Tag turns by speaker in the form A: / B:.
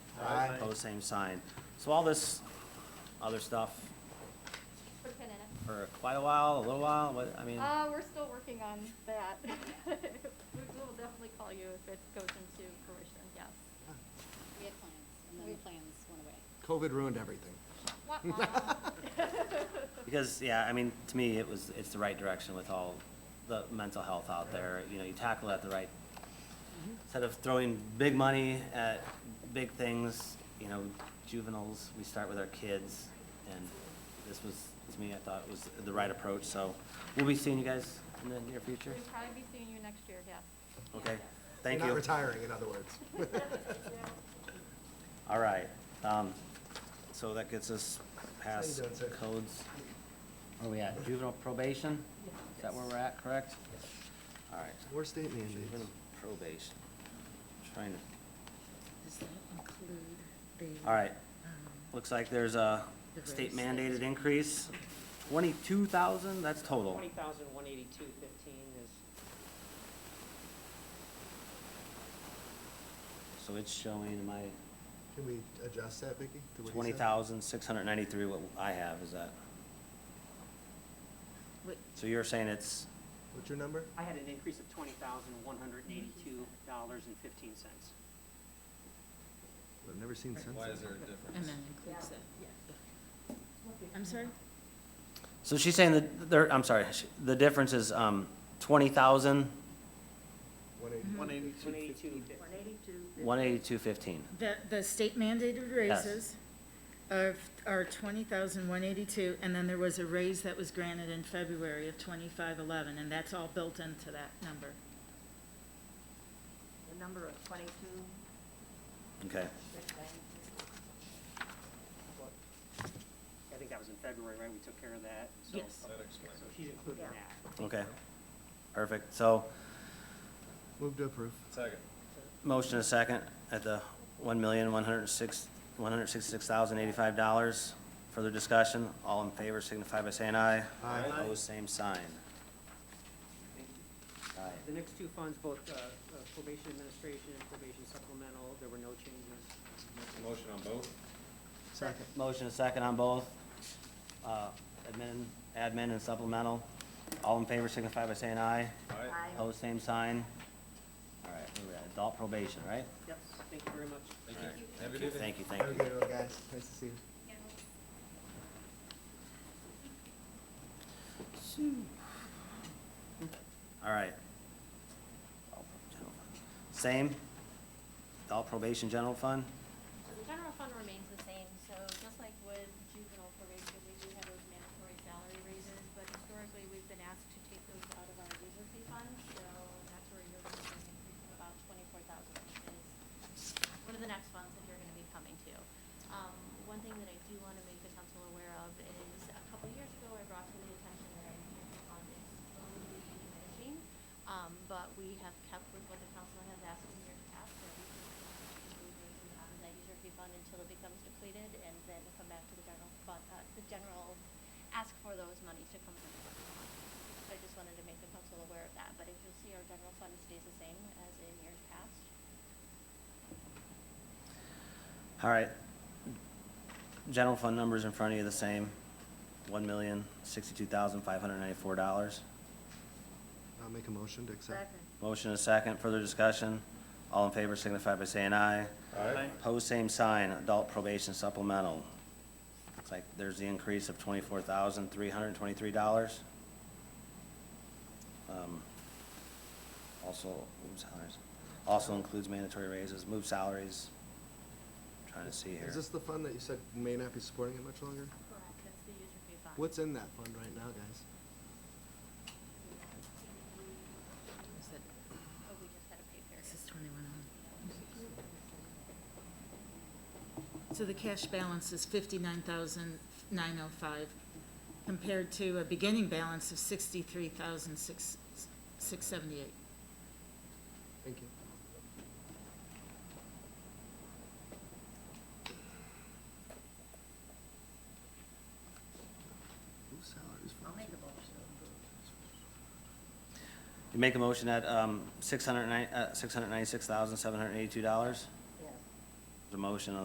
A: the same sign. So all this other stuff
B: We're kinda-
A: for quite a while, a little while, what, I mean,
B: Uh, we're still working on that. We we will definitely call you if it goes into fruition, yes.
C: We had plans, and then the plans went away.
D: COVID ruined everything.
B: Wah, wah.
A: because, yeah, I mean, to me, it was, it's the right direction with all the mental health out there. You know, you tackle it at the right, instead of throwing big money at big things, you know, juveniles, we start with our kids. And this was, to me, I thought was the right approach, so we'll be seeing you guys in the near future.
B: We'll probably be seeing you next year, yes.
A: Okay, thank you.
D: You're not retiring, in other words.
A: All right, um, so that gets us past
D: doing, sir?
A: codes. Where are we at? Juvenile probation? Is that where we're at, correct? All right.
D: More state mandates.
A: Juvenile probation. Trying to,
E: Does that include the?
A: all right,
E: um,
A: looks like there's a state mandated increase. Twenty-two thousand, that's total.
F: Twenty thousand, one eighty-two, fifteen is,
A: So it's showing my
D: Can we adjust that, Vicky? to what he said?
A: twenty thousand, six hundred ninety-three, what I have, is that?
E: what-
A: So you're saying it's,
D: What's your number?
F: I had an increase of twenty thousand, one hundred and eighty-two dollars and fifteen cents.
D: I've never seen since.
G: Why is there a
E: And
G: difference?
E: then includes that, I'm sorry?
A: so she's saying that there, I'm sorry, sh- the difference is, um, twenty thousand,
D: One
E: Mhm.
D: eighty.
G: One eighty-two
F: One eighty-two, fifteen.
A: one eighty-two fifteen.
E: The, the state mandated raises of, are twenty thousand one eighty-two, and then there was a raise that was granted in February of twenty-five eleven, and that's all built into that number.
H: The number of twenty-two,
A: Okay,
H: six ninety-two.
F: I think that was in February, right? We took care of that, so.
E: Yes.
G: That explains
F: So
G: it.
F: she's including
H: Yeah.
F: that.
A: okay, perfect. So,
D: Move to approve.
G: Second.
A: motion a second at the one million, one hundred and six, one hundred and sixty-six thousand, eighty-five dollars. Further discussion, all in favor signify by saying aye.
D: Aye.
A: Opposed, same sign.
F: Thank you.
A: Aye.
F: The next two funds, both uh, uh, probation administration and probation supplemental, there were no changes.
G: Make a Motion on both?
D: Second.
A: Motion a second on both, uh, admin, admin and supplemental. All in favor signify by saying aye.
G: Aye.
A: Opposed, same sign. All right, where we at? adult probation, right?
F: Yep, thank you very much.
G: Thank you. Have a good evening.
A: Thank you, thank
D: Have a
A: you.
D: good one, guys. Nice to see you.
A: All right. Same? Adult probation general fund?
B: The general fund remains the same, so just like with juvenile probation, we do have those mandatory salary raises, but historically, we've been asked to take those out of our user fee fund, so that's where you're going to see an increase of about twenty-four thousand, which is one of the next funds that you're gonna be coming to. Um, one thing that I do wanna make the council aware of is, a couple of years ago, I brought to the attention that our user fee fund is slowly diminishing, um, but we have kept with what the council has asked in years past, that we can out of um, that user fee fund until it becomes depleted, and then come back to the general fund, uh, the general, ask for those monies to come from the general fund. So I just wanted to make the council aware of that, but if you'll see, our general fund stays the same as in years past.
A: All right. General fund numbers in front of you the same, one million, sixty-two thousand, five hundred ninety-four dollars.
D: I'll make a motion to accept.
A: Motion is second, further discussion. All in favor signify by saying aye.
G: Aye.
A: Pose same sign, adult probation supplemental. Looks like there's the increase of twenty-four thousand, three hundred and twenty-three dollars. Um, Also, move salaries, also includes mandatory raises, move salaries. Trying to see here.
D: Is this the fund that you said may not be supporting it much longer?
B: Correct. That's the user fee Oh, fund.
D: What's in that fund right now, guys?
E: Is that,
B: Oh, we just had a pay period.
E: this is twenty-one So the cash balance is fifty-nine thousand nine oh five, compared to a beginning balance of sixty-three thousand six, six seventy-eight.
D: Thank you. Who's salaries for?
H: I'll make a motion to approve.
A: You make a motion at, um, six hundred nine, uh, six hundred ninety-six thousand, seven hundred eighty-two dollars?
H: Yes.
A: The motion